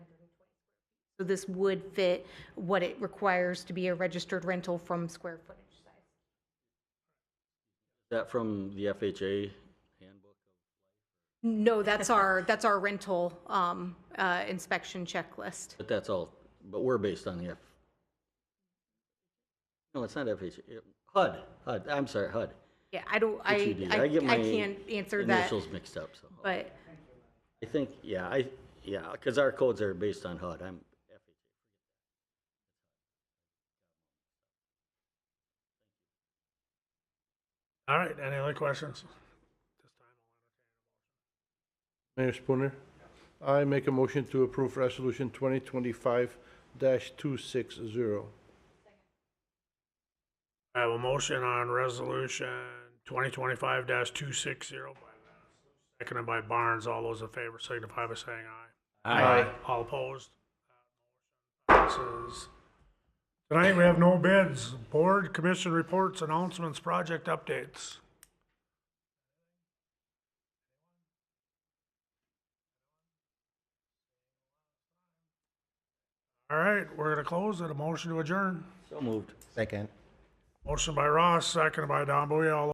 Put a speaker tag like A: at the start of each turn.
A: So this would fit what it requires to be a registered rental from square footage size.
B: That from the FHA handbook?
A: No, that's our, that's our rental um, uh, inspection checklist.
B: But that's all, but we're based on the F. No, it's not FHA, it- HUD, HUD, I'm sorry, HUD.
A: Yeah, I don't, I,
B: HUD.
A: I I
B: E get my
A: can't answer that,
B: Initials mixed up, so.
A: but
B: I think, yeah, I, yeah, because our codes are based on HUD, I'm,
C: All right, any other questions?
D: Mayor Spooner, I make a motion to approve Resolution 2025-260.
C: I have a motion on resolution twenty twenty-five two six zero. Seconded by Barnes. All those in favor signify by saying aye. All opposed? Passes. Tonight, we have no bids. Board, commission reports, announcements, project updates. All right, we're gonna close it. A motion to adjourn.
B: so moved.
E: Second.
C: Motion by Ross, seconded by Don Buoy. All